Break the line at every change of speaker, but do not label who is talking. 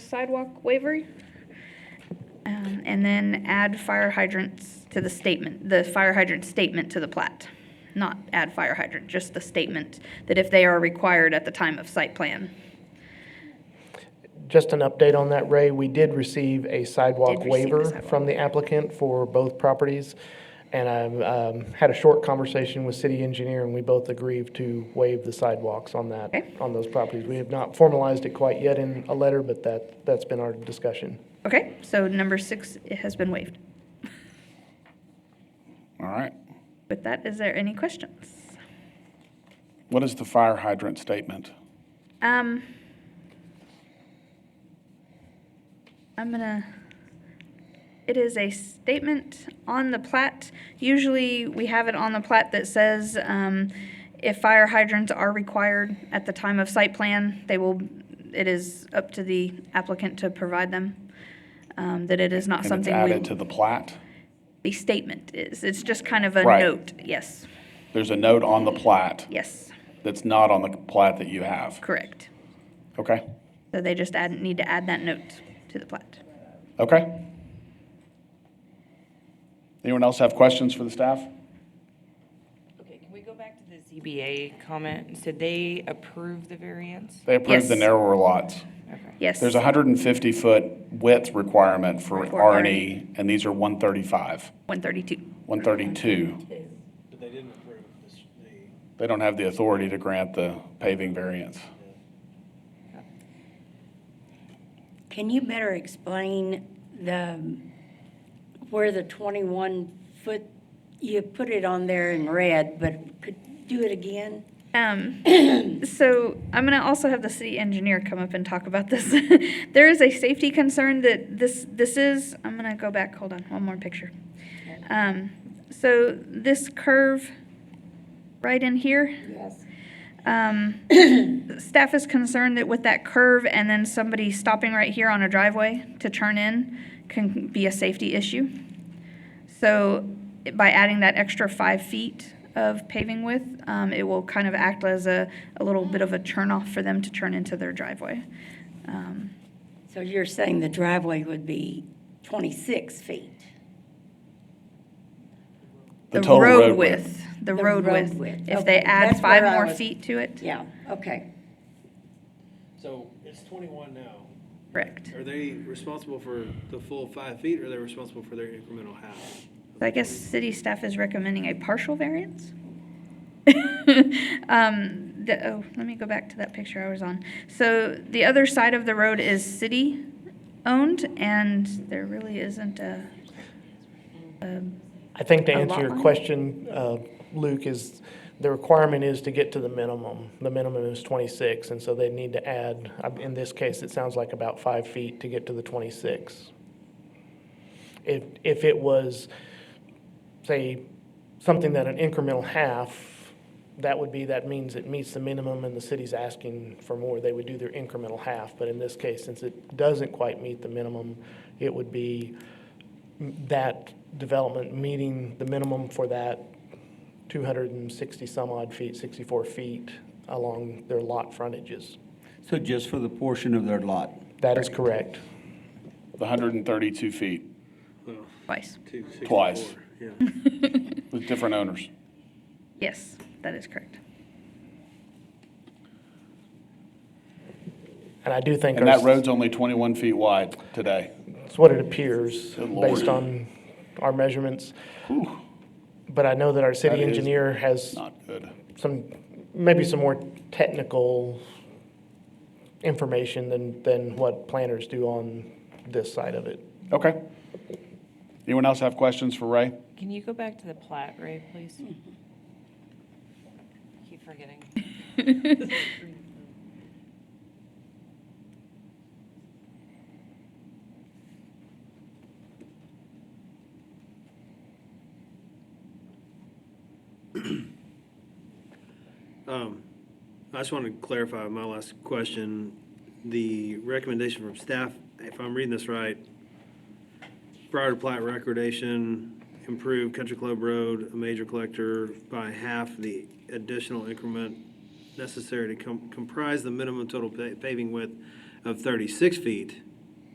sidewalk waiver. Um, And then add fire hydrants to the statement, the fire hydrant statement to the plat. Not add fire hydrant, just the statement that if they are required at the time of site plan.
Just an update on that, Ray, we did receive a
Did
sidewalk
receive a
waiver
sidewalk.
from the applicant for both properties. And I um, had a short conversation with city engineer, and we both agreed to waive the sidewalks on that,
Okay.
on those properties. We have not formalized it quite yet in a letter, but that, that's been our discussion.
Okay, so number six it has been waived.
All right.
With that, is there any questions?
What is the fire hydrant statement?
Um, I'm gonna, it is a statement on the plat. Usually, we have it on the plat that says, um, if fire hydrants are required at the time of site plan, they will, it is up to the applicant to provide them. Um, that it is not
And it's
something
added
we,
to the plat?
the statement is, it's just kind of a
Right.
note, yes,
There's a note on the plat
yes,
that's not on the plat that you have.
correct.
Okay?
So they just add, need to add that note to the plat.
Okay? Anyone else have questions for the staff?
Okay, can we go back to the ZBA comment? Did they approve the variance?
They approved the
Yes.
narrower lots.
Okay.
Yes.
There's a 150-foot width requirement for
For
R and E, and these are 135,
132.
132.
But they didn't approve this, the
They don't have the authority to grant the paving variance.
Can you better explain the, where the 21-foot, you put it on there in red, but could do it again?
Um, so I'm going to also have the city engineer come up and talk about this. there is a safety concern that this this is. I'm going to go back. Hold on, one more picture. Um, so this curve right in here.
Yes.
Um, staff is concerned that with that curve and then somebody stopping right here on a driveway to turn in can be a safety issue. So by adding that extra five feet of paving width, um, it will kind of act as a, a little bit of a turnoff for them to turn into their driveway. Um,
So you're saying the driveway would be 26 feet?
The total road
The
The
road
road
width.
width.
If
Okay,
they add
that's
five
where I
more
was-
feet to it,
Yeah, okay.
So it's twenty-one now.
correct.
Are they responsible for the full five feet, or are they responsible for their incremental half?
So I guess city staff is recommending a partial variance. Um, the, oh, let me go back to that picture I was on. So the other side of the road is city-owned, and there really isn't a,
I think to
A lot
answer your
line.
question, uh, Luke, is the requirement is to get to the minimum. The minimum is 26, and so they need to add, uh, in this case, it sounds like about five feet to get to the 26. If, if it was, say, something that an incremental half, that would be, that means it meets the minimum and the city's asking for more, they would do their incremental half. But in this case, since it doesn't quite meet the minimum, it would be that development meeting the minimum for that 260 some odd feet, 64 feet along their lot frontages.
So just for the portion of their lot?
That is correct.
The 132 feet
Well,
twice.
two sixty-four.
Twice.
Yeah.
with different owners.
Yes, that is correct.
And I do think
And
our-
that road's only 21 feet wide today.
It's what it appears,
Good lord.
based on our measurements. But I know that our city
That is
engineer has
Not good.
some, maybe some more technical information than, than what planners do on this side of it.
Okay. Anyone else have questions for Ray?
Can you go back to the plat, Ray, please? Keep forgetting.
Um, I just want to clarify my last question. The recommendation from staff, if I'm reading this right, prior to plat recordation, improve Country Club Road, a major collector, by half the additional increment necessary to com- comprise the minimum total pa- paving width of 36 feet